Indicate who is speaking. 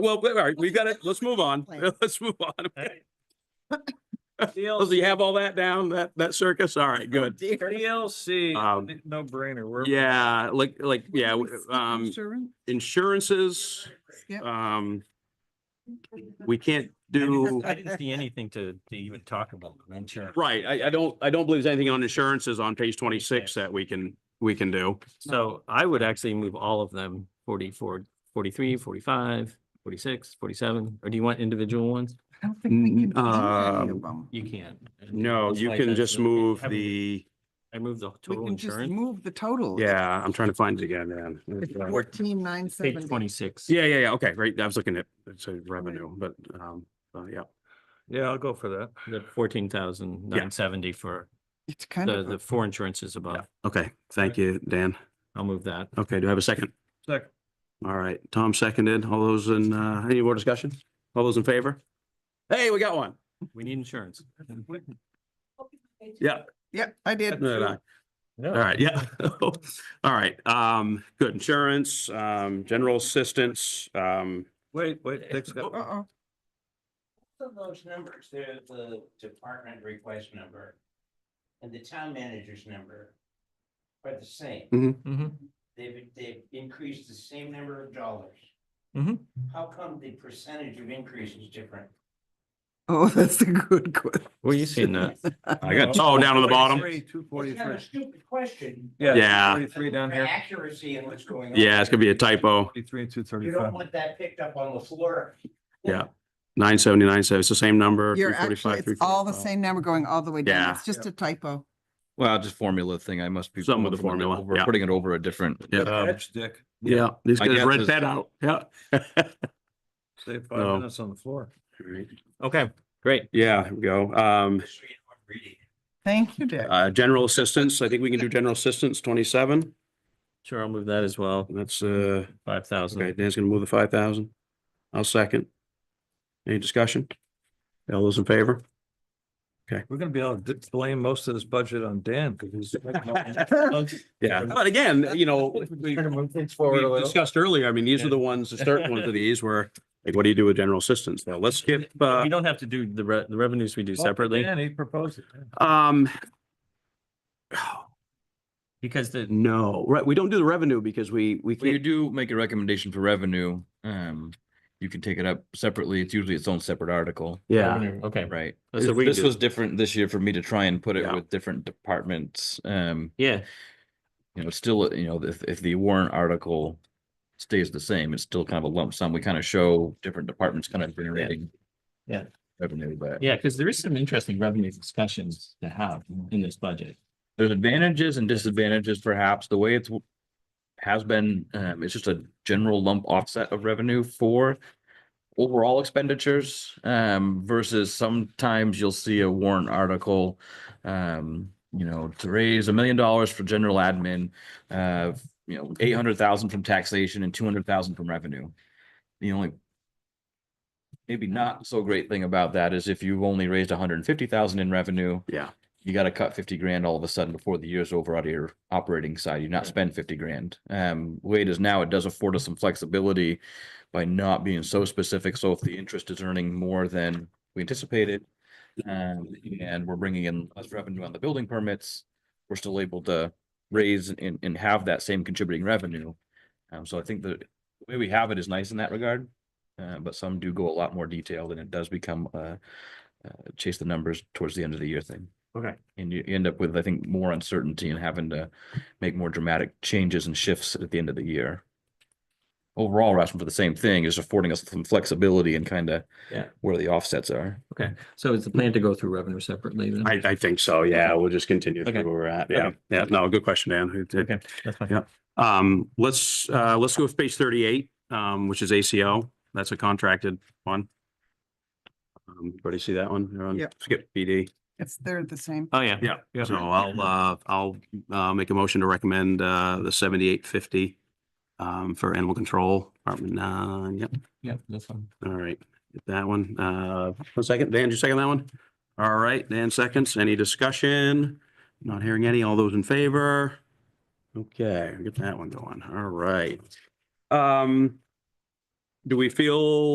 Speaker 1: Well, all right, we got it. Let's move on. Let's move on. So you have all that down, that, that circus? All right, good. Um,
Speaker 2: DLC, no brainer. We're-
Speaker 1: Yeah, like, like, yeah, w- um,
Speaker 3: Insurance?
Speaker 1: insurances,
Speaker 3: Yep.
Speaker 1: um, we can't do,
Speaker 4: I didn't see anything to, to even talk about, insurance.
Speaker 1: right, I, I don't, I don't believe there's anything on insurances on page twenty-six that we can, we can do.
Speaker 4: So I would actually move all of them, 44, 43, 45, 46, 47. or do you want individual ones?
Speaker 3: I don't think we can do any
Speaker 1: Um,
Speaker 3: of them.
Speaker 4: You can.
Speaker 1: No,
Speaker 4: It's
Speaker 1: you
Speaker 4: like
Speaker 1: can
Speaker 4: that's-
Speaker 1: just move
Speaker 4: I would-
Speaker 1: the,
Speaker 4: I moved the
Speaker 3: We
Speaker 4: total
Speaker 3: can just
Speaker 4: insurance,
Speaker 3: move the total.
Speaker 1: yeah, I'm trying to find it again, man.
Speaker 3: Fourteen nine
Speaker 4: page
Speaker 3: seventy.
Speaker 4: twenty-six.
Speaker 1: Yeah, yeah, yeah, okay, right, I was looking at, it's a revenue, but, um, uh, yeah.
Speaker 2: Yeah, I'll go for that.
Speaker 4: The fourteen thousand nine seventy for
Speaker 3: It's kind
Speaker 4: the,
Speaker 3: of,
Speaker 4: the
Speaker 3: a-
Speaker 4: four insurances above.
Speaker 1: Okay, thank you, Dan.
Speaker 4: I'll move that.
Speaker 1: Okay, do I have a second?
Speaker 2: Second.
Speaker 1: All right, Tom seconded. All those in, uh, any more discussion? All those in favor? Hey, we got one.
Speaker 4: We need insurance.
Speaker 1: Yeah.
Speaker 3: yeah, I did.
Speaker 1: no, no. All right, yeah. All right, um, good. Insurance, um, general assistance, um,
Speaker 2: Wait, wait, Dick's got one.
Speaker 3: Uh-oh.
Speaker 5: Of those numbers, they're the department request number and the town manager's number are the same.
Speaker 1: Hmm.
Speaker 4: Mhm.
Speaker 5: They've, they've increased the same number of dollars.
Speaker 4: Mhm.
Speaker 5: How come the percentage of increase is different?
Speaker 3: Oh, that's a good question.
Speaker 4: Where you seeing that?
Speaker 1: I got, oh, down on the bottom.
Speaker 2: Two
Speaker 5: It's kind of a
Speaker 2: forty-three.
Speaker 5: stupid question.
Speaker 1: Yeah.
Speaker 2: Forty-three down
Speaker 5: For
Speaker 2: here.
Speaker 5: Accuracy and what's going on.
Speaker 1: Yeah, it's gonna be a typo.
Speaker 2: Forty-three and two
Speaker 5: You don't
Speaker 2: thirty-five.
Speaker 5: want that picked up on the floor.
Speaker 1: Yeah. Nine seventy-nine, so it's the same number.
Speaker 3: You're actually,
Speaker 1: 345,
Speaker 3: it's all the
Speaker 1: 345.
Speaker 3: same number going all the way down.
Speaker 1: Yeah.
Speaker 3: It's just a typo.
Speaker 6: Well, just formula thing. I must be.
Speaker 1: Something with
Speaker 6: pulling
Speaker 1: the
Speaker 6: from a di-
Speaker 1: formula,
Speaker 6: over-
Speaker 1: yeah.
Speaker 6: Putting it over a different.
Speaker 1: Yeah.
Speaker 2: Catch, Dick.
Speaker 1: Um, Yeah, these
Speaker 6: My
Speaker 1: guys
Speaker 6: guess
Speaker 1: read
Speaker 6: is-
Speaker 1: that out. Yeah.
Speaker 2: Save
Speaker 1: No.
Speaker 2: five minutes on the floor.
Speaker 4: Okay, great.
Speaker 1: Yeah, here we go. Um,
Speaker 5: So you don't read it.
Speaker 3: Thank you, Dick.
Speaker 1: uh, general assistance, I think we can do general assistance twenty-seven.
Speaker 4: Sure, I'll move that as well.
Speaker 1: That's, uh,
Speaker 4: Five thousand.
Speaker 1: Okay, Dan's gonna move the five thousand. I'll second. Any discussion? All those in favor?
Speaker 2: We're gonna be able to d- blame most of this budget on Dan because he's.
Speaker 1: Yeah, but again, you know, we we discussed earlier, I mean, these are the ones, the certain ones of these where, like, what do you do with general assistance? Now, let's skip, uh,
Speaker 4: We don't have to do the re- the revenues we do
Speaker 3: Oh,
Speaker 4: separately
Speaker 2: And he proposed it.
Speaker 1: um,
Speaker 4: because the,
Speaker 1: no, right, we don't do the revenue because we, we
Speaker 6: When you
Speaker 1: can't,
Speaker 6: do make a recommendation for revenue, um, you can take it up separately. It's usually its own separate article.
Speaker 1: yeah.
Speaker 4: okay,
Speaker 6: Right.
Speaker 1: That's what we
Speaker 6: This
Speaker 1: do.
Speaker 6: was different this year for me to try and put it
Speaker 1: Yeah.
Speaker 6: with different departments. Um,
Speaker 4: yeah,
Speaker 6: you know, it's still, you know, if, if the warrant article stays the same, it's still kind of a lump sum. We kind of show different departments kind of generating.
Speaker 4: Yeah.
Speaker 6: Revenue, but
Speaker 4: yeah, because there is some interesting revenue discussions to have in this budget.
Speaker 6: there's advantages and disadvantages perhaps. The way it's w- has been, um, it's just a general lump offset of revenue for overall expenditures, um, versus sometimes you'll see a warrant article, um, you know, to raise a million dollars for general admin, uh, you know, eight hundred thousand from taxation and two hundred thousand from revenue. The only maybe not so great thing about that is if you've only raised hundred and fifty thousand in revenue,
Speaker 1: Yeah,
Speaker 6: you got to cut 50 grand all of a sudden before the year's over out of your operating side. You not spend 50 grand. Um, the way it is now, it does afford us some flexibility by not being so specific. So if the interest is earning more than we anticipated, um, and we're bringing in less revenue on the building permits, we're still able to raise and, and have that same contributing revenue. Um, so I think the way we have it is nice in that regard. Uh, but some do go a lot more detailed and it does become, uh, uh, chase the numbers towards the end of the year thing.
Speaker 4: Okay.
Speaker 6: And you end up with, I think, more uncertainty and having to make more dramatic changes and shifts at the end of the year. Overall, we're asking for the same thing, is affording us some flexibility and kind of
Speaker 4: Yeah.
Speaker 6: where the offsets are.
Speaker 4: Okay, so it's the plan to go through revenue separately then?
Speaker 1: I, I think so, yeah, we'll just continue through
Speaker 4: Okay.
Speaker 1: where we're at, yeah, yeah, no, good question, Dan. It- it-
Speaker 4: Okay, that's fine.
Speaker 1: Yeah. Um, let's, uh, let's go with page thirty-eight, um, which is ACO. That's a contracted one. Um, everybody see that one? Everyone
Speaker 3: Yep.
Speaker 1: Skip PD.
Speaker 3: It's, they're the same.
Speaker 4: Oh, yeah.
Speaker 1: Yeah. So I'll, uh, I'll, uh, make a motion to recommend, uh, the seventy-eight fifty, um, for animal control, Department nine, yep.
Speaker 4: Yeah, that's fine.
Speaker 1: All right, get that one. Uh, one second, Dan, did you second that one? All right, Dan seconds. Any discussion? Not hearing any. All those in favor? Okay, get that one going. All right. Um, do we feel